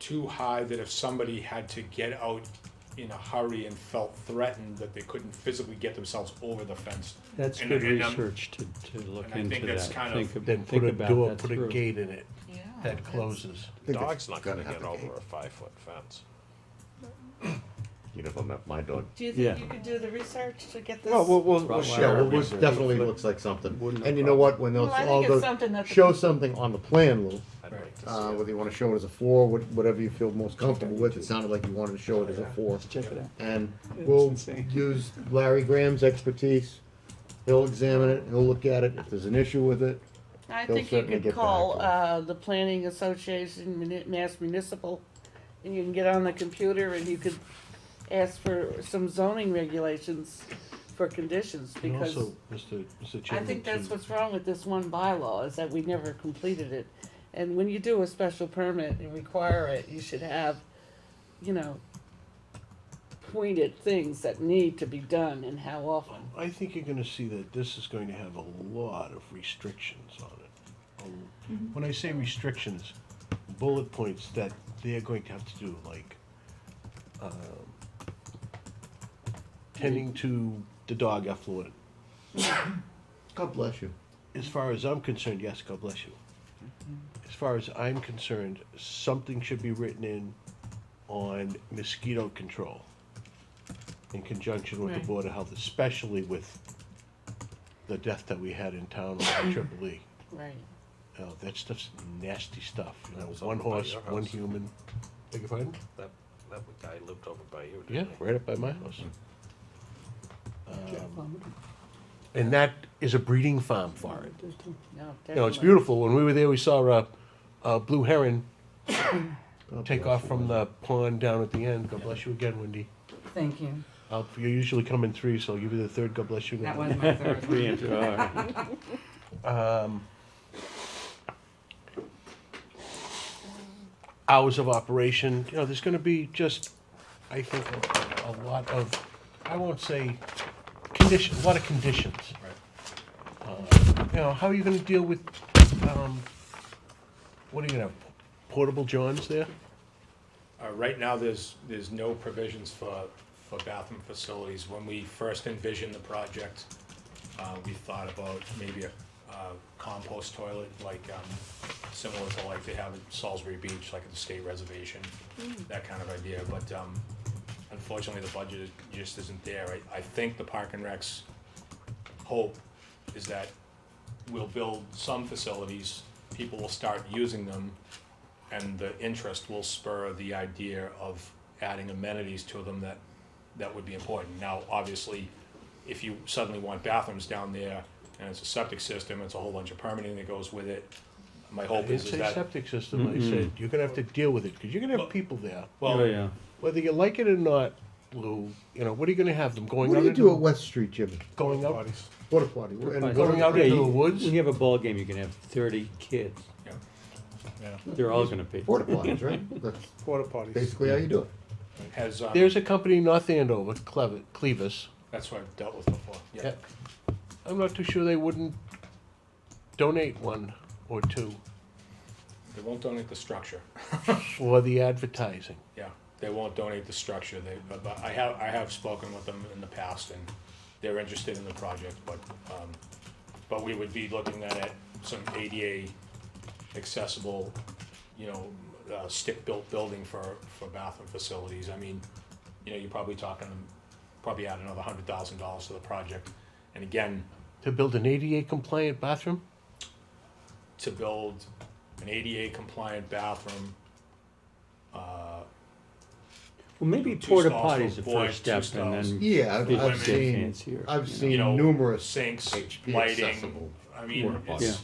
too high that if somebody had to get out in a hurry and felt threatened, that they couldn't physically get themselves over the fence. That's And- good and I'm- research to, to look and I think into that's that. kind Think of- ab- Then think put a about door, that put a through. gate in it Yeah. that closes. think that's Dog's not gonna gonna get have to over a five-foot fence. You never met my dog. Do you Yeah. think you could do the research to get this? Well, we'll, we'll, we'll Rottweiler. share Yeah, it well, with it was you. Right. definitely looks like something. Wouldn't And no you know what, when those, Well, I all think it's those, something that. the- show something on the plan, Lou. I'd like to see Uh, it. whether you wanna show it as a four, what- whatever you feel most comfortable with, it sounded like you wanted to show it as a four. Check it out. And It's we'll insane. use Larry Graham's expertise. He'll examine it, he'll look at it, if there's an issue with it, I They'll think you certainly get could back to call, us. uh, the Planning Association, Muni- Mass Municipal, and you can get on the computer and you could ask for some zoning regulations for conditions, And because also, Mr. Mr. I Chairman. think that's to- what's wrong with this one bylaw, is that we never completed it. And when you do a special permit and require it, you should have, you know, pointed things that need to be done and how often. I think you're gonna see that this is going to have a lot of restrictions on it. A- Mm-hmm. When I say restrictions, bullet points that they're going to have to do, like, um, tending to the dog affluent. God bless you. As far as I'm concerned, yes, God bless you. As far as I'm concerned, something should be written in on mosquito control in conjunction with the Right. Board of Health, especially with the death that we had in town on the Triple E. Right. Uh, that stuff's nasty stuff. You That know, was one over by horse, your one house. human. Beg your pardon? That, that guy lived over by you, Yeah, right up by my house. Mm. Um, and that is a breeding farm for it. No, You know, it's definitely. beautiful. When we were there, we saw a, a blue heron take off from the pond down at the end. God bless you again, Wendy. Thank you. Uh, you usually come in three, so I'll give you the third. God bless you. That now. was my third Three one. inch, all right. Hours of operation. You know, there's going to be just, I think, a, a lot of, I won't say condition, a lot of conditions. Uh, you know, how are you going to deal with, um, what are you going to have? Portable Johns there? Uh, right now, there's, there's no provisions for, for bathroom facilities. When we first envisioned the project, uh, we thought about maybe a, uh compost toilet, like, um, similar to like they have at Salisbury Beach, like at the state reservation, that kind of idea, but, um, unfortunately, the budget is- just isn't there. I, I think the Park and Rec's hope is that we'll build some facilities, people will start using them, and the interest will spur the idea of adding amenities to them that, that would be important. Now, obviously, if you suddenly want bathrooms down there, and it's a septic system, it's a whole bunch of permitting that goes with it, my I hope didn't is, is say that, septic system. I said, you're going to have to deal with it because you're going to have people there. Oh, well, yeah. whether you like it or not, Lou, you know, what are you gonna have them going What do out you into do at the, West Street, Jim? going out? Porta potty. And Going out Yeah, into the you- woods? When you have a ball game, you can have thirty kids. Yeah. They're all gonna be. Porta potties, right? That's Porta potties. basically how you do it. has, um, There's a company in North Andover, Clevis, Clevis. that's what I've dealt with before, yeah. I'm not too sure they wouldn't donate one or two They won't donate the structure. for the advertising. Yeah, they won't donate the structure, they, but, but I have, I have spoken with them in the past, and they're interested in the project, but, um, but we would be looking at some ADA accessible, you know, uh, stick-built building for, for bathroom facilities, I mean, you know, you're probably talking, probably add another hundred thousand dollars to the project, and again, To build an ADA compliant bathroom? to build an ADA compliant bathroom, uh, Well, maybe Two porta stalls for potties the boys, first two step and stalls. then. Yeah, I've, People I've get seen, fancier, I've you seen you know, numerous. sinks, HP lighting. accessible I mean, porta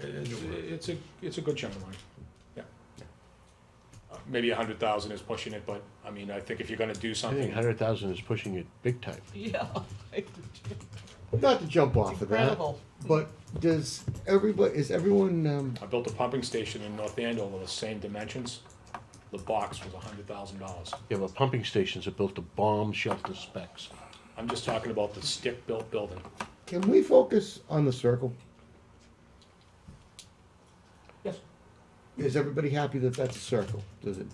it's, it's, it's a it's a good chunk of money. Yeah. Uh, Maybe a hundred thousand is pushing it, but I mean, I think if you're gonna do I think something, hundred thousand is pushing it big time. Yeah. Not to jump off of that, Incredible. but does everybody, is everyone, um, I built a pumping station in North Andover, the same dimensions. The box was a hundred thousand dollars. You have a pumping stations that built to bomb shelter specs. I'm just talking about the stick-built building. can we focus on the circle? Yes. is everybody happy that that's a circle? Does it,